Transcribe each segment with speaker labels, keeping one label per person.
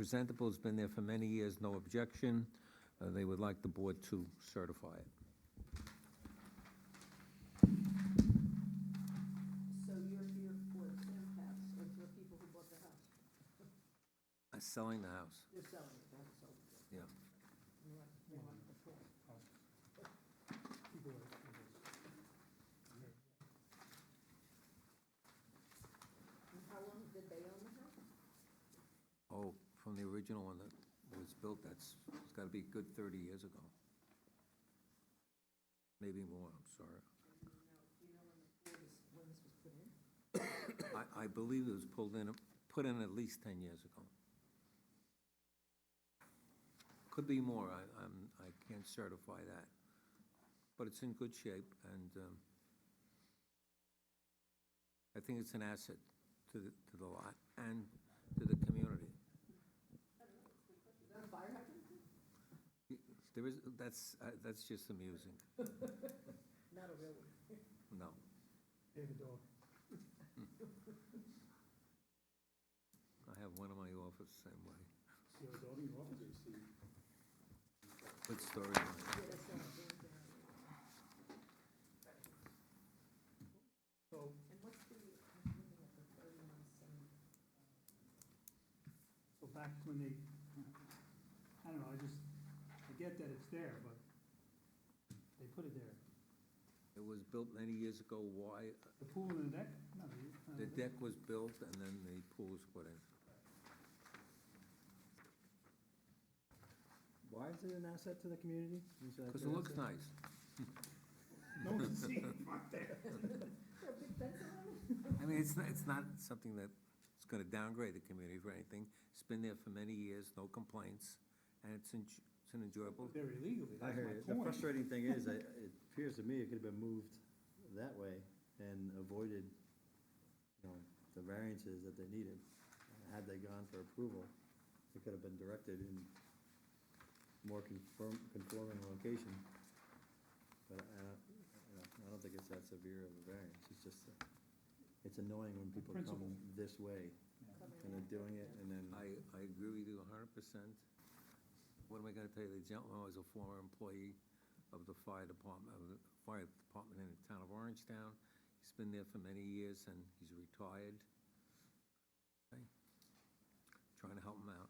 Speaker 1: presentable, it's been there for many years, no objection. Uh, They would like the board to certify it.
Speaker 2: So you're here for Sam's house, or for people who bought the house?
Speaker 1: Uh, Selling the house,
Speaker 2: They're selling it, they haven't sold it yet.
Speaker 1: yeah.
Speaker 2: They want, they want the full. And how long did they own the house?
Speaker 1: Oh, from the original one that was built, that's, it's gotta be a good thirty years ago. Maybe more, I'm sorry.
Speaker 2: And you know, do you know when the pool was, when this was put in?
Speaker 1: I, I believe it was pulled in, put in at least ten years ago. Could be more, I, I'm, I can't certify that. But it's in good shape and, um, I think it's an asset to the, to the lot and to the community.
Speaker 2: Is that a fire hydrant?
Speaker 1: There is, that's, uh, that's just amusing,
Speaker 2: Not a real one.
Speaker 1: no.
Speaker 3: David Dog.
Speaker 1: I have one in my office same way,
Speaker 3: You have a dog in your office, you see?
Speaker 1: with storage.
Speaker 2: Yeah, that's not a real one.
Speaker 3: So,
Speaker 2: And what's the, I'm looking at the thirty-one seven.
Speaker 3: so back when they, I don't know, I just, I get that it's there, but they put it there.
Speaker 1: It was built many years ago, why,
Speaker 3: The pool and the deck? No, uh,
Speaker 1: the deck was built and then the pool was put in.
Speaker 4: Why is it an asset to the community? Is that
Speaker 1: Because it
Speaker 4: an
Speaker 1: looks
Speaker 4: asset?
Speaker 1: nice.
Speaker 3: No one can see it from up there.
Speaker 2: a big fence around
Speaker 1: I
Speaker 2: it?
Speaker 1: mean, it's not, it's not something that's gonna downgrade the community for anything. It's been there for many years, no complaints, and it's en- it's an enjoyable,
Speaker 3: They're illegally, that's
Speaker 4: I hear
Speaker 3: my
Speaker 4: you. The
Speaker 3: point.
Speaker 4: frustrating thing is, I- it appears to me it could have been moved that way and avoided, you know, the variances that they needed. Had they gone for approval, it could have been directed in more conform, conforming location. But I don't, I don't- I don't think it's that severe of a variance, it's just, uh, it's annoying when people
Speaker 3: principle.
Speaker 4: come this way and they're doing it and then.
Speaker 1: I, I agree with you a hundred percent. What am I gonna tell you? The gentleman was a former employee of the fire department, of the fire department in the town of Orangetown. He's been there for many years and he's retired. Okay. Trying to help him out.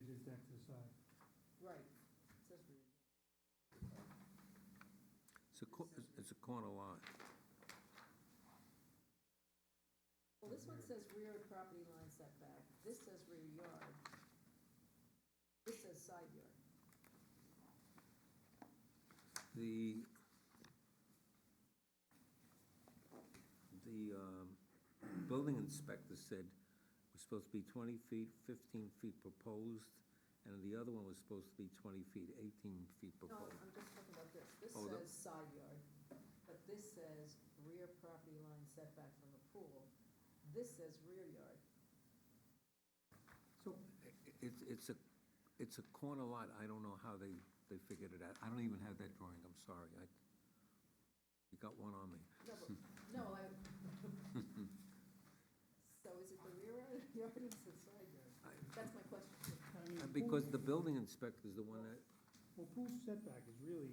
Speaker 3: It is deck to the side.
Speaker 2: Right. It says rear.
Speaker 1: It's a, co- it's a corner lot.
Speaker 2: Well, this one says rear property line setback, this says rear yard. This says side yard.
Speaker 1: The, the um, building inspector said was supposed to be 20 feet, 15 feet proposed, and the other one was supposed to be 20 feet, 18 feet
Speaker 2: No, I'm
Speaker 1: proposed.
Speaker 2: I'm just talking about this. This
Speaker 1: Oh, the-
Speaker 2: says side yard, but this says rear property line setback from the pool. This says rear yard.
Speaker 3: So,
Speaker 1: I- It's, it's a, it's a corner lot, I don't know how they, they figured it out. I don't even have that drawing, I'm sorry. I, you got one on me.
Speaker 2: No, but, no, I. So is it the rear yard or is it side yard?
Speaker 1: I-
Speaker 2: That's my question.
Speaker 3: I mean,
Speaker 1: uh,
Speaker 3: pool-
Speaker 1: Because the building inspector is the one that,
Speaker 3: Well, pool setback is really,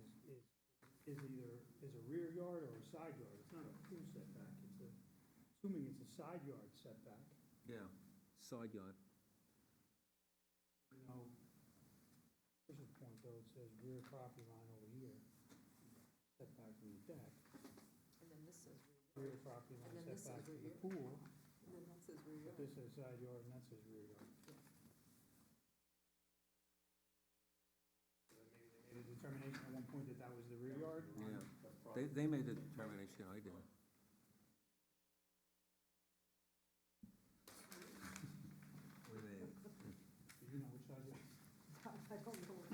Speaker 3: is, is, is either, is a rear yard or a side yard. It's not a pool setback, it's a, assuming it's a side yard setback,
Speaker 1: yeah, side yard.
Speaker 3: you know. There's a point though, it says rear property line over here, setback from the deck,
Speaker 2: And then this says rear
Speaker 3: rear
Speaker 2: yard,
Speaker 3: property
Speaker 2: And
Speaker 3: line
Speaker 2: then this
Speaker 3: setback
Speaker 2: is
Speaker 3: from
Speaker 2: rear.
Speaker 3: the pool.
Speaker 2: and then that says rear
Speaker 3: But
Speaker 2: yard.
Speaker 3: this says side yard and that says rear yard. So then maybe they made a determination at one point that that was the rear yard.
Speaker 1: Yeah. They, they made the determination, I didn't.
Speaker 3: Do you know which side yard?
Speaker 2: I don't know what